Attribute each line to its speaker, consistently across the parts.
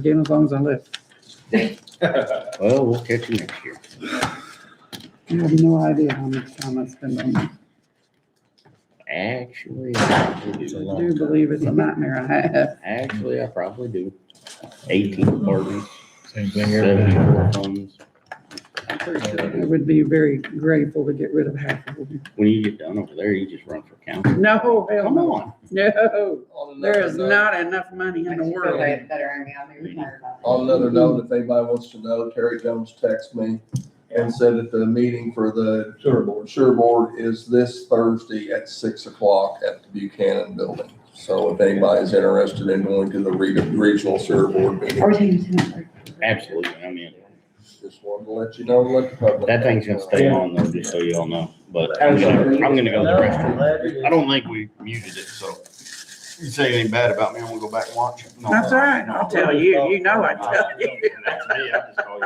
Speaker 1: the game as long as I live.
Speaker 2: Well, we'll catch you next year.
Speaker 1: You have no idea how much time I spend on this.
Speaker 2: Actually, I probably
Speaker 1: I
Speaker 2: do.
Speaker 1: do believe it's a nightmare I have.
Speaker 2: Actually, I probably do. Eighteen pardons,
Speaker 3: Same thing every
Speaker 2: seventy-four phones.
Speaker 1: I'm pretty sure I would be very grateful to get rid of half of them.
Speaker 2: When you get done over there, you just run for council.
Speaker 1: No, hell
Speaker 2: Come
Speaker 1: no.
Speaker 2: on.
Speaker 1: No,
Speaker 4: On
Speaker 1: there
Speaker 4: another
Speaker 1: is
Speaker 4: note-
Speaker 1: not enough money in the
Speaker 5: Makes you feel
Speaker 1: world.
Speaker 5: Better, I mean, I'll be retired by then.
Speaker 4: On another note,
Speaker 3: Mm-hmm.
Speaker 4: if anybody wants to know, Terry Jones texted me and said that the meeting for the
Speaker 3: Sure, boy.
Speaker 4: Sure Board is this Thursday at six o'clock at the Buchanan Building. So if anybody's interested in going to the re- regional Sure Board meeting,
Speaker 5: Are we taking a ten hour?
Speaker 2: Absolutely, I mean,
Speaker 4: just wanted to let you know, let the public.
Speaker 2: that thing's gonna stay on though, just so y'all know, but I'm gonna, I'm gonna go to the restroom. I don't think we muted it, so. You say anything bad about me, I'm gonna go back and watch. it. No.
Speaker 1: That's all right. I'll tell you. You know I tell you.
Speaker 2: That's me, I just call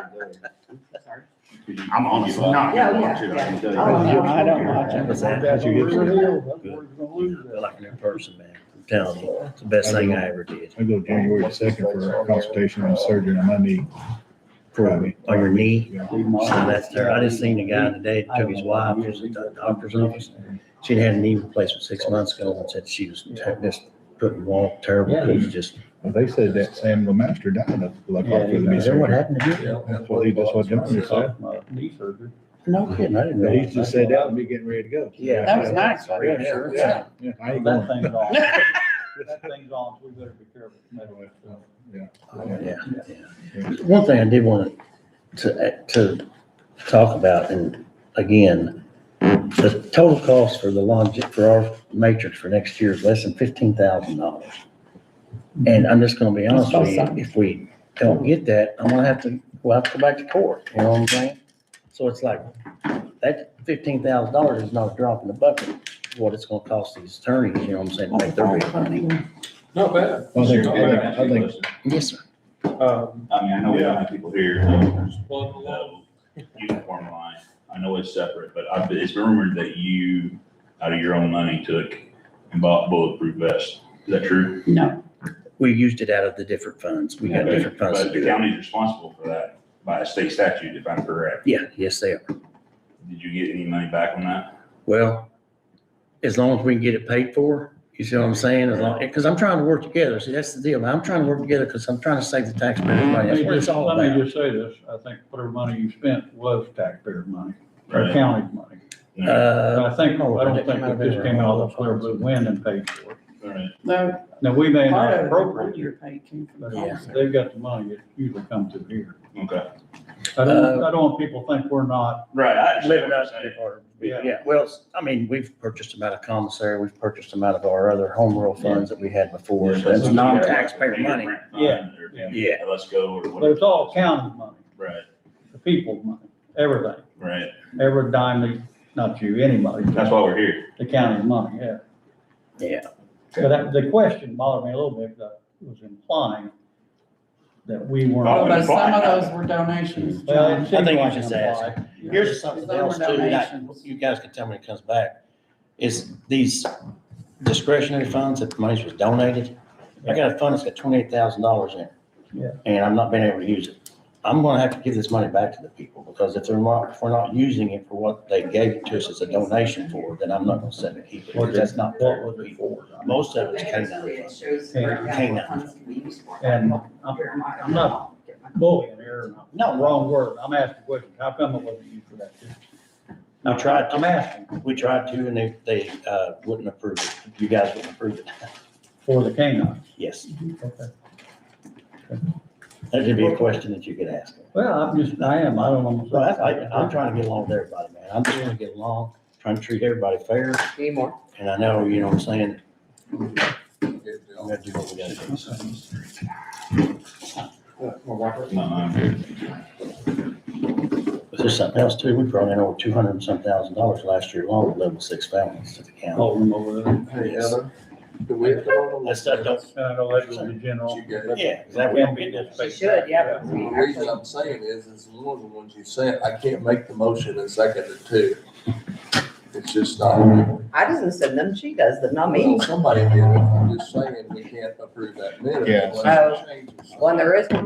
Speaker 2: you. I'm honestly not
Speaker 5: Yeah,
Speaker 2: gonna
Speaker 5: yeah,
Speaker 2: watch it, I can tell you.
Speaker 5: Oh, no, I don't
Speaker 1: watch
Speaker 6: it. Like a new person, man. I'm telling you, it's the best thing I ever did.
Speaker 3: I go January second for a consultation on surgery on my knee. Friday.
Speaker 6: On your knee.
Speaker 3: Yeah.
Speaker 6: So that's terrible. I just seen a guy today, that took his wife, to the doctor's office. She'd had a knee replacement six months ago and said she was ter- just couldn't walk terrible, couldn't just,
Speaker 3: Well, they said that Sam Lemaster died of blood clot through the knee
Speaker 6: is that what
Speaker 3: surgery.
Speaker 6: happened to you?
Speaker 4: Yeah.
Speaker 3: That's what he, that's what Johnson said.
Speaker 6: No kidding, I didn't know.
Speaker 3: He just said that would be getting ready to go.
Speaker 6: Yeah.
Speaker 1: That was nice.
Speaker 3: Yeah,
Speaker 1: wasn't it?
Speaker 3: yeah, Yeah, yeah, I ain't going.
Speaker 7: thing's on. That thing's on, we better be careful.
Speaker 3: Yeah.
Speaker 6: Yeah, yeah. One thing I did want to, to talk about, and again, the total cost for the longe, for our matrix for next year is less than fifteen thousand dollars. And I'm just gonna be honest with you, if we don't get that, I'm gonna have to, we'll have to go back to court, you know what I'm saying? So it's like, that fifteen thousand dollars is not a drop in the bucket, what it's gonna cost these attorneys, you know what I'm saying, to make their bid.
Speaker 4: Not bad.
Speaker 3: I think, I think, I think
Speaker 6: Yes, sir.
Speaker 8: I mean, I know we don't have people here, um, um, uniform line, I know it's separate, but I, it's been rumored that you, out of your own money, took and bought bulletproof vests. Is that true?
Speaker 1: No,
Speaker 6: We used it out of the different funds, we got different funds to
Speaker 8: But
Speaker 6: do
Speaker 8: the
Speaker 6: that.
Speaker 8: county's responsible for that by a state statute, if I'm correct.
Speaker 6: Yeah, yes, they are.
Speaker 8: Did you get any money back on that?
Speaker 6: Well, as long as we can get it paid for, you see what I'm saying? As long, because I'm trying to work together. See, that's the deal. I'm trying to work together because I'm trying to save the taxpayers money. That's what it's all
Speaker 7: Let me
Speaker 6: about.
Speaker 7: just say this, I think whatever money you spent was taxpayer money, or
Speaker 8: Right.
Speaker 7: county money.
Speaker 8: No.
Speaker 6: Uh,
Speaker 7: And I think, I don't think
Speaker 6: It might have
Speaker 7: it just
Speaker 6: been
Speaker 7: came out
Speaker 6: around-
Speaker 7: of clear blue wind and paid for it.
Speaker 8: Alright.
Speaker 1: no.
Speaker 7: Now, we may
Speaker 1: Part
Speaker 7: not
Speaker 1: of the
Speaker 7: appropriate uh, it,
Speaker 1: your pay came from
Speaker 7: but
Speaker 6: Yeah.
Speaker 7: if they've got the money, it usually comes through here.
Speaker 8: Okay.
Speaker 7: I don't, I don't want people to think we're not,
Speaker 8: Right, I
Speaker 6: Living
Speaker 8: understand what
Speaker 6: up
Speaker 8: you're
Speaker 6: to
Speaker 8: saying.
Speaker 6: our,
Speaker 7: Yeah.
Speaker 6: yeah, well, I mean, we've purchased them out of commissary. We've purchased them out of our other home rule funds that we had before.
Speaker 8: Just
Speaker 6: That's
Speaker 8: like-
Speaker 6: non-taxpayer money.
Speaker 7: Yeah.
Speaker 8: Or-
Speaker 7: Yeah.
Speaker 6: Yeah.
Speaker 8: Let's go or
Speaker 7: but
Speaker 8: whatever.
Speaker 7: it's all county money,
Speaker 8: Right,
Speaker 7: the people's money, everything,
Speaker 8: right.
Speaker 7: every dime, they- not you, anybody.
Speaker 8: That's why we're here.
Speaker 7: The county's money, yeah.
Speaker 6: Yeah.
Speaker 7: But that- the question bothered me a little bit, that was implying that we
Speaker 8: Oh,
Speaker 7: weren't.
Speaker 1: But
Speaker 8: that's
Speaker 1: some
Speaker 8: fine.
Speaker 1: of those were donations,
Speaker 7: Well, it
Speaker 1: John.
Speaker 7: seemed
Speaker 6: think you
Speaker 7: like
Speaker 6: should
Speaker 7: it
Speaker 6: say it's-
Speaker 7: implied.
Speaker 6: Here's something
Speaker 1: Those were
Speaker 6: else too, that
Speaker 1: donations.
Speaker 6: you guys can tell me when it comes back, is these discretionary funds, if the money was donated, I got a fund that's got twenty-eight thousand dollars in it.
Speaker 7: Yeah.
Speaker 6: And I'm not being able to use it. I'm gonna have to give this money back to the people, because if they're not, if we're not using it for what they gave it to us as a donation for, then I'm not gonna send it, keep it,
Speaker 7: What
Speaker 6: because that's not fair.
Speaker 7: was it for?
Speaker 6: Most of it's
Speaker 5: They
Speaker 6: canine
Speaker 5: have to,
Speaker 6: funds.
Speaker 5: it shows.
Speaker 7: Yeah.
Speaker 5: where
Speaker 6: Canine.
Speaker 5: funds can be used for.
Speaker 7: And I'm
Speaker 5: Here, I'm not-
Speaker 7: I'm not- bullying here, no, wrong word, I'm asking questions, how come it wasn't used for that?
Speaker 6: We tried
Speaker 7: I'm
Speaker 6: to,
Speaker 7: asking
Speaker 6: we tried to, and they, they, uh, wouldn't approve it, you guys wouldn't approve it,
Speaker 7: for the canines.
Speaker 6: yes,
Speaker 7: Okay.
Speaker 6: that should be a question that you could ask.
Speaker 7: Well, I'm just, I am, I don't know.
Speaker 6: Well, I, I, I'm trying to get along with everybody, man. I'm just trying to get along, trying to treat everybody fair,
Speaker 5: Anymore.
Speaker 6: and I know, you know what I'm saying?
Speaker 4: Yeah.
Speaker 6: We gotta do what we gotta do.
Speaker 8: No, I'm here.
Speaker 6: But there's something else too. We brought in over two hundred and some thousand dollars last year alone, with level six families to the county.
Speaker 7: Hold them over there.
Speaker 4: Hey, Heather, do we have to vote on
Speaker 6: That stuff don't,
Speaker 7: And I know that was the general.
Speaker 4: You got it.
Speaker 6: yeah, that we don't get this.
Speaker 5: She should, yeah. but we
Speaker 4: The reason I'm saying is, is one of the ones you sent, I can't make the motion and second it too. It's just not.
Speaker 5: I doesn't send them, she does them, not me.
Speaker 4: Well, Somebody did it, I'm just saying, we can't approve that minute.
Speaker 3: Yeah.
Speaker 4: unless it changes.
Speaker 5: When there is Oh, one